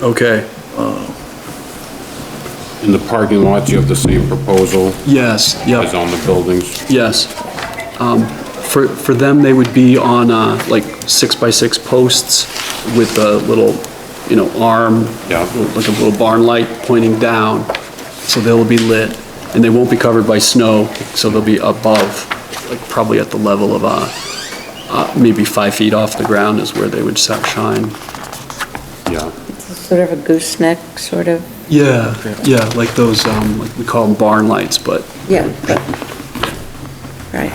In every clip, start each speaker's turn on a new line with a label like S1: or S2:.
S1: Okay,
S2: In the parking lots, you have the same proposal
S1: yes,
S2: as
S1: yep,
S2: on the buildings.
S1: yes. Um, For, for them, they would be on uh, like six-by-six posts with a little, you know, arm,
S2: Yeah.
S1: like a little barn light pointing down, so they'll be lit, and they won't be covered by snow, so they'll be above, like probably at the level of, uh, uh, maybe five feet off the ground is where they would sa- shine.
S2: Yeah.
S3: Sort of a gooseneck, sort of,
S1: Yeah, yeah, like those, um, like we call them barn lights, but
S3: yeah. but- Right.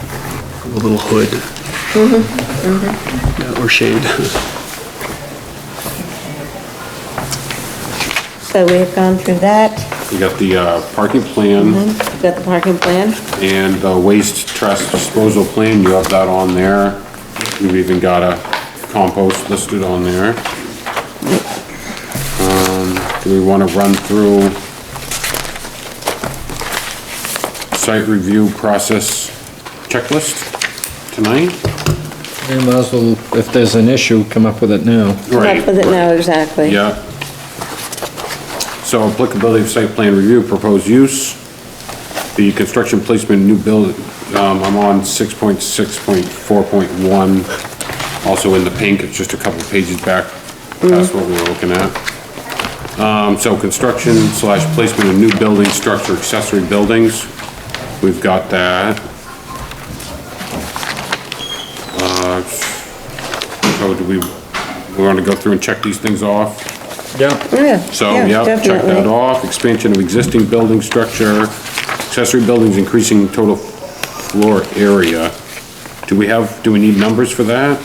S1: a little hood. Yeah, Or shade.
S3: So we have gone through that,
S2: You got the uh, parking plan
S3: We've got the parking plan.
S2: and the waste trust disposal plan, you have that on there. You've even got a compost listed on there. Um, Do we want to run through site review process checklist tonight?
S4: We might as well, if there's an issue, come up with it now.
S2: Right.
S3: Up with it now, exactly.
S2: Yeah. So applicability of site plan review, proposed use, the construction placement, of new build, um, I'm on six point six point four point one, also in the pink, it's just a couple pages back, that's what we were looking at. Um, so construction slash placement of new building, structure, accessory buildings, we've got that. Uh, so do we, we wanna go through and check these things off?
S4: Yeah.
S3: Yeah.
S2: So, yeah, check that
S3: definitely.
S2: off, expansion of existing building structure, accessory buildings increasing total floor area. Do we have, do we need numbers for that?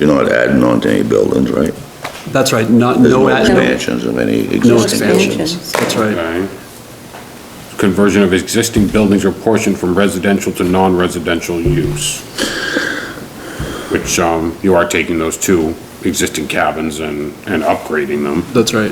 S5: You're not adding on to any buildings, right?
S1: That's right, not,
S5: There's
S1: no,
S5: no
S1: ad- no,
S5: expansions of any
S1: no
S5: existing buildings.
S1: expansions. That's right,
S2: Okay. Conversion of existing buildings or portion from residential to non-residential use. Which, um, you are taking those two existing cabins and, and upgrading them,
S1: that's right.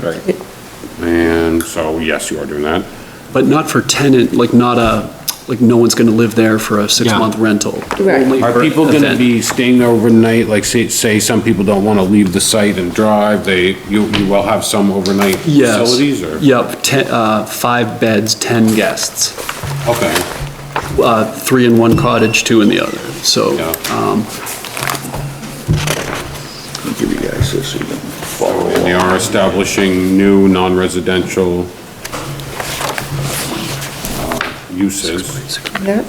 S2: and so, yes, you are doing that.
S1: But not for tenant, like not a, like no one's gonna live there for a six-month rental.
S3: Right.
S1: Only
S2: Are
S1: for
S2: people gonna
S1: event.
S2: be staying overnight, like say, say some people don't wanna leave the site and drive, they, you, you will have some overnight
S1: Yes.
S2: facilities or?
S1: Yep, ten, uh, five beds, 10 guests,
S2: Okay,
S1: uh, three in one cottage, two in the other, so.
S2: Yeah.
S1: um,
S5: I'll Give you guys this, so you can follow
S2: and they
S5: along.
S2: are establishing new non-residential uh, uses,
S3: Yep.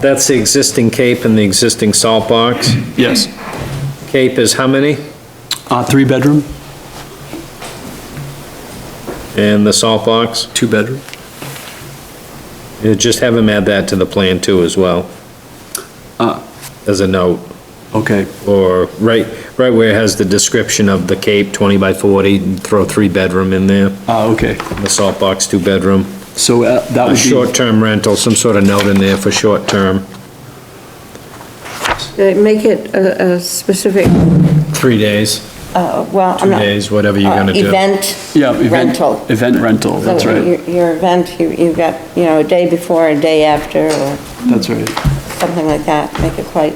S4: That's the existing cape and the existing salt box.
S1: Yes,
S4: Cape is how many?
S1: uh, three-bedroom,
S4: And the salt box?
S1: two-bedroom,
S4: You Just have them add that to the plan too as well. Uh.
S1: Ah.
S4: As a note,
S1: okay,
S4: or right, right where it has the description of the cape, 20 by 40, and throw three bedroom in there,
S1: uh, okay,
S4: and the salt box, two bedroom.
S1: so uh, that
S4: A
S1: would be,
S4: short-term rental, some sort of note in there for short-term,
S3: Uh, Make it a, a specific,
S4: three days,
S3: uh, well,
S4: two
S3: I'm not.
S4: days, whatever you're
S3: uh,
S4: gonna do.
S3: Event.
S1: yeah. event-
S3: Rental.
S1: Event rental, that's
S3: So
S1: right,
S3: your, your event, you, you've got, you know, a day before, a day after, or
S1: that's right.
S3: something like that, make it quite,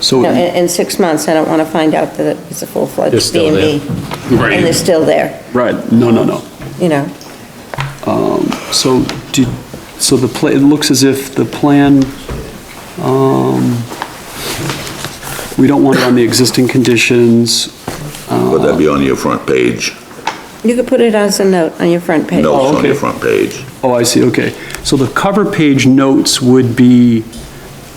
S1: So.
S3: you know, in, in six months, I don't wanna find out that it's a
S4: They're
S3: full-fledged B
S4: still
S3: and
S4: there.
S3: B. And they're still there,
S1: Right, no, no, no.
S3: you know,
S1: So did, so the pla, it looks as if the plan, um, we don't want it on the existing conditions.
S5: But that'd be on your front page,
S3: you could put it as a note on your front page.
S5: notes on your
S1: okay.
S5: front page.
S1: Oh, I see, okay. So the cover page notes would be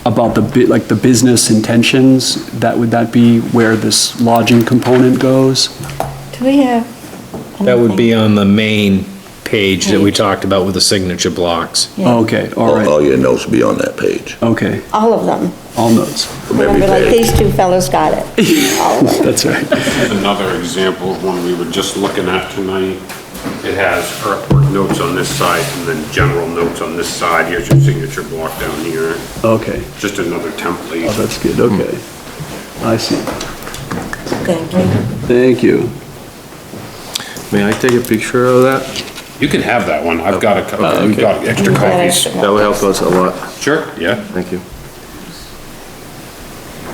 S1: about the, bu- like, the business intentions? That, would that be where this lodging component goes?
S3: Do we have?
S4: That would be on the main page that we talked about with the signature blocks.
S3: Yeah.
S1: Okay, all
S5: All
S1: right,
S5: all your notes will be on that page,
S1: okay,
S3: All of them.
S1: all notes.
S5: from every
S3: Remember, like,
S5: page.
S3: these two fellows got it. All of them.
S1: That's right.
S2: another example of one we were just looking at tonight. It has earthwork notes on this side and then general notes on this side, here's your signature block down here,
S1: Okay,
S2: just another template.
S1: oh, that's good, okay. I see.
S3: Thank you.
S1: Thank you.
S6: May I take a picture of that?
S2: You can have that one, I've got a, couple- we've got extra
S3: You've got
S2: copies.
S3: extra
S6: That
S3: ones.
S6: would help us a lot.
S2: Sure, yeah.
S6: Thank you.